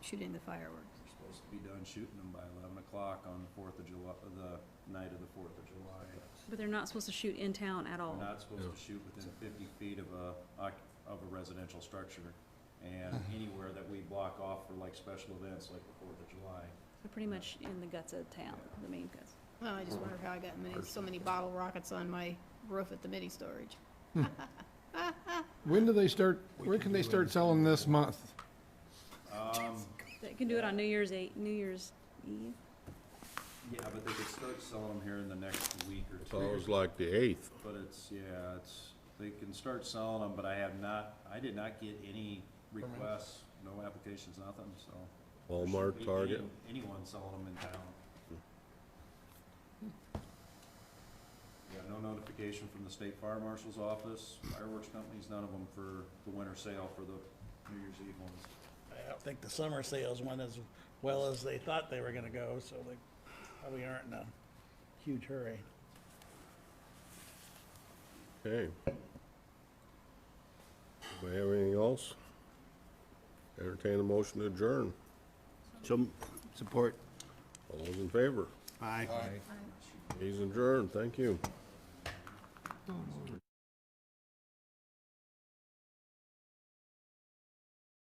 shooting the fireworks. We're supposed to be done shooting them by eleven o'clock on the Fourth of July, uh, the night of the Fourth of July. But they're not supposed to shoot in town at all. We're not supposed No. to shoot within fifty feet of a, oc- of a residential structure. And anywhere that we block off for like special events like the Fourth of July. They're pretty much in the guts of town, the main guts. Well, I just wonder how I got many, so many bottle rockets on my roof at the mini storage. When do they start, when can they start selling this month? Um, They can do it on New Year's eight, New Year's Eve. yeah, but they could start selling them here in the next week or two. Sounds like the eighth. But it's, yeah, it's, they can start selling them, but I have not, I did not get any requests, no applications, nothing, so. there shouldn't Walmart, be Target. any- Anyone selling them in town. Got no notification from the state fire marshal's office, fireworks companies, none of them for the winter sale for the New Year's Eve ones. I don't think the summer sales went as well as they thought they were gonna go, so they probably aren't in a huge hurry. Okay. Do we have anything else? Entertain a motion to adjourn. So, support. All those in favor? Aye. He's adjourned. Thank you.